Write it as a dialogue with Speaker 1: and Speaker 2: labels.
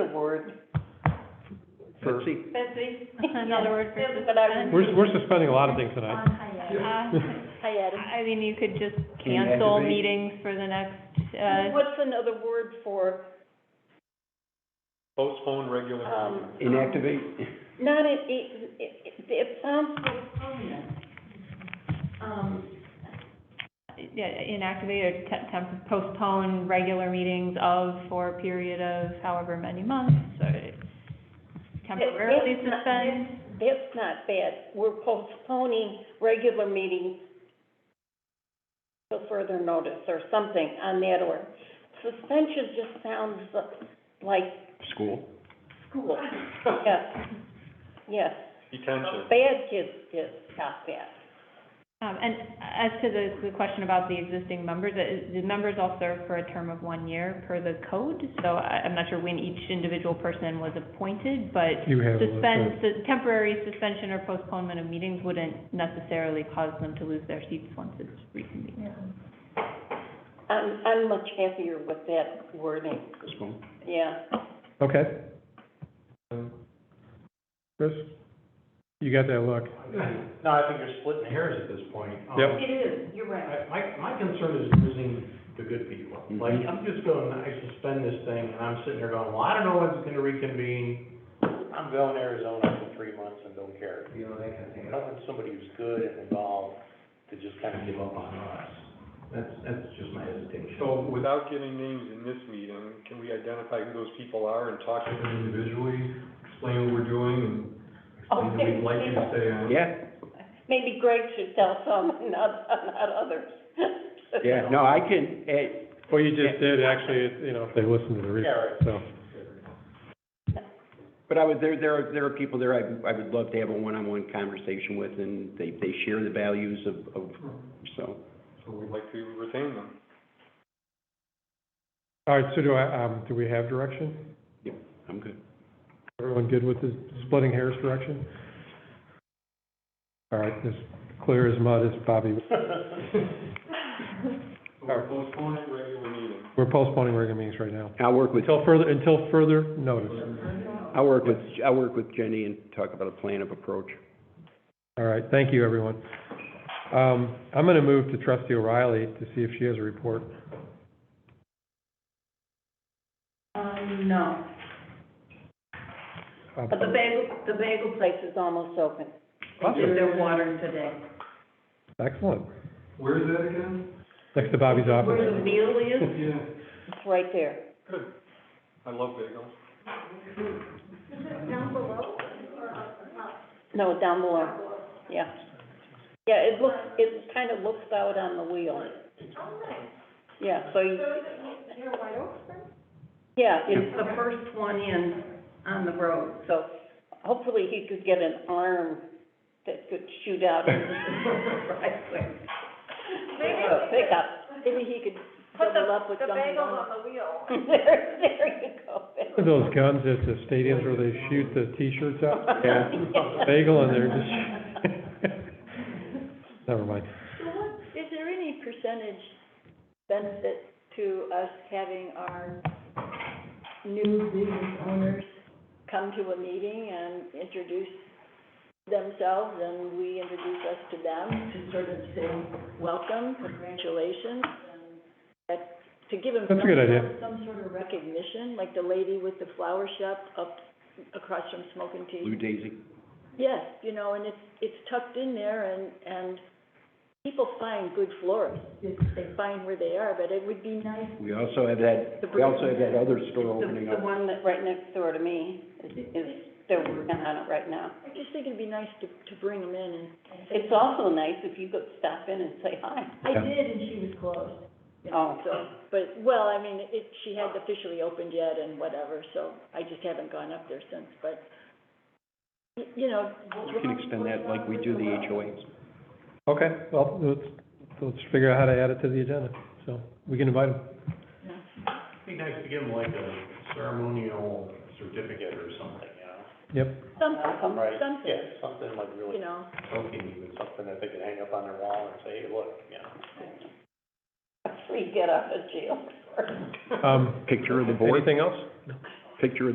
Speaker 1: word for.
Speaker 2: Betsy,
Speaker 3: Betsy?
Speaker 4: Another word for
Speaker 3: Yeah, But I would.
Speaker 1: We're, we're suspending a lot of things tonight.
Speaker 4: Uh, I mean, you could just
Speaker 2: Can you
Speaker 4: cancel
Speaker 2: activate?
Speaker 4: meetings for the next, uh,
Speaker 3: What's another word for,
Speaker 5: Postpone regular meeting.
Speaker 3: um?
Speaker 2: inactivate?
Speaker 3: Not it, it, it, it sounds so permanent. Um,
Speaker 4: yeah, inactivate or te- temp, postpone regular meetings of for a period of however many months, or temporarily
Speaker 3: It's not-
Speaker 4: suspend.
Speaker 3: that's not bad. We're postponing regular meetings till further notice or something on that order. Suspension just sounds like
Speaker 2: School?
Speaker 3: school. Yes, yes.
Speaker 5: Detention.
Speaker 3: Bad kids get stop that.
Speaker 4: Um, and as to the, the question about the existing members, uh, the members all serve for a term of one year per the code, so I, I'm not sure when each individual person was appointed, but
Speaker 1: You have. a-
Speaker 4: suspend, the temporary suspension or postponement of meetings wouldn't necessarily cause them to lose their seats once it's reconvened.
Speaker 3: I'm, I'm much happier with that wording,
Speaker 2: Postpone.
Speaker 3: yeah.
Speaker 1: Okay. Chris, you got that look.
Speaker 6: No, I think you're splitting hairs at this point. Um,
Speaker 1: Yep.
Speaker 7: It is, you're right.
Speaker 6: I- My, my concern is losing the good people. Like, I'm just going, I suspend this thing, and I'm sitting there going, well, I don't know when it's gonna reconvene. I'm going to Arizona for three months and don't care, you know, that kind of thing. I don't want somebody who's good and involved to just kind of give up on us. That's, that's just my hesitation.
Speaker 5: So without getting names in this meeting, can we identify who those people are and talk to them individually, explain what we're doing, and explain that we'd like you to stay on?
Speaker 2: Yeah,
Speaker 3: Maybe Greg should tell some, not, not others.
Speaker 2: yeah, no, I can, eh,
Speaker 1: Well, you just did, actually, it- you know, if they listen to the
Speaker 6: Yeah,
Speaker 1: replay,
Speaker 6: right.
Speaker 1: so.
Speaker 2: but I would, there, there are, there are people there I, I would love to have a one-on-one conversation with, and they, they share the values of, of, so.
Speaker 5: So we'd like to retain them.
Speaker 1: All right, so do I, um, do we have direction?
Speaker 2: I'm good.
Speaker 1: Everyone good with the splitting hairs direction? All right, as clear as mud as Bobby.
Speaker 5: So We're postponing regular meeting.
Speaker 1: We're postponing regular meetings right now.
Speaker 2: I'll work with,
Speaker 1: Until further, until further notice.
Speaker 2: I'll work with, I'll work with Jenny and talk about a plan of approach.
Speaker 1: All right, thank you, everyone. Um, I'm gonna move to trustee O'Reilly to see if she has a report.
Speaker 7: Oh,
Speaker 3: Um, no.
Speaker 1: Uh,
Speaker 3: But the bagel, the bagel place is almost open.
Speaker 1: Awesome.
Speaker 7: They're watering today.
Speaker 1: Excellent.
Speaker 5: Where is that again?
Speaker 1: Next to Bobby's
Speaker 7: Where
Speaker 1: office.
Speaker 7: the meal is,
Speaker 5: Yeah.
Speaker 3: It's right there.
Speaker 5: Good. I love bagels.
Speaker 3: No, down below, yeah. Yeah, it looks, it kind of looks out on the wheel. Yeah, so you. Yeah, it's,
Speaker 7: it's the first one in on the road.
Speaker 3: so hopefully he could get an arm that could shoot out into the driveway. Uh, Pickup, maybe he could double up with something.
Speaker 7: the wheel.
Speaker 3: There, there you go.
Speaker 1: Those guns at the stadiums where they shoot the T-shirts out.
Speaker 2: Yeah.
Speaker 1: bagel and they're just, never mind.
Speaker 3: So what, is there any percentage benefit to us having our new business owners come to a meeting and introduce themselves, and we introduce us to them to sort of say, welcome, congratulations, and that, to give them
Speaker 1: That's a good
Speaker 3: some-
Speaker 1: idea.
Speaker 3: Some sort of recognition, like the lady with the flower shop up across from Smoking Tea.
Speaker 2: Blue Daisy.
Speaker 3: Yes, you know, and it's, it's tucked in there and, and people find good florists. It's- They find where they are, but it would be nice.
Speaker 2: We also have that, we also have that other store opening up.
Speaker 3: one that, right next door to me, is, is, they're working on it right now. I just think it'd be nice to, to bring them in and. It's also nice if you could stop in and say hi.
Speaker 1: Yeah.
Speaker 7: did, and she was closed.
Speaker 3: Oh, so, but, well, I mean, it, she hadn't officially opened yet and whatever, so I just haven't gone up there since, but, y- you know.
Speaker 2: We can extend that like we do the HOAs.
Speaker 1: Okay, well, let's, let's figure out how to add it to the agenda, so we can invite them.
Speaker 6: Be nice to give them like a ceremonial certificate or something, you know?
Speaker 1: Yep,
Speaker 3: Something,
Speaker 6: Right,
Speaker 3: something,
Speaker 6: yeah, something like really
Speaker 3: you know.
Speaker 6: poking you, and something that they could hang up on their wall and say, hey, look, you know.
Speaker 3: A free get out of jail card.
Speaker 1: um,
Speaker 2: Picture of the board,
Speaker 1: anything else?
Speaker 2: picture of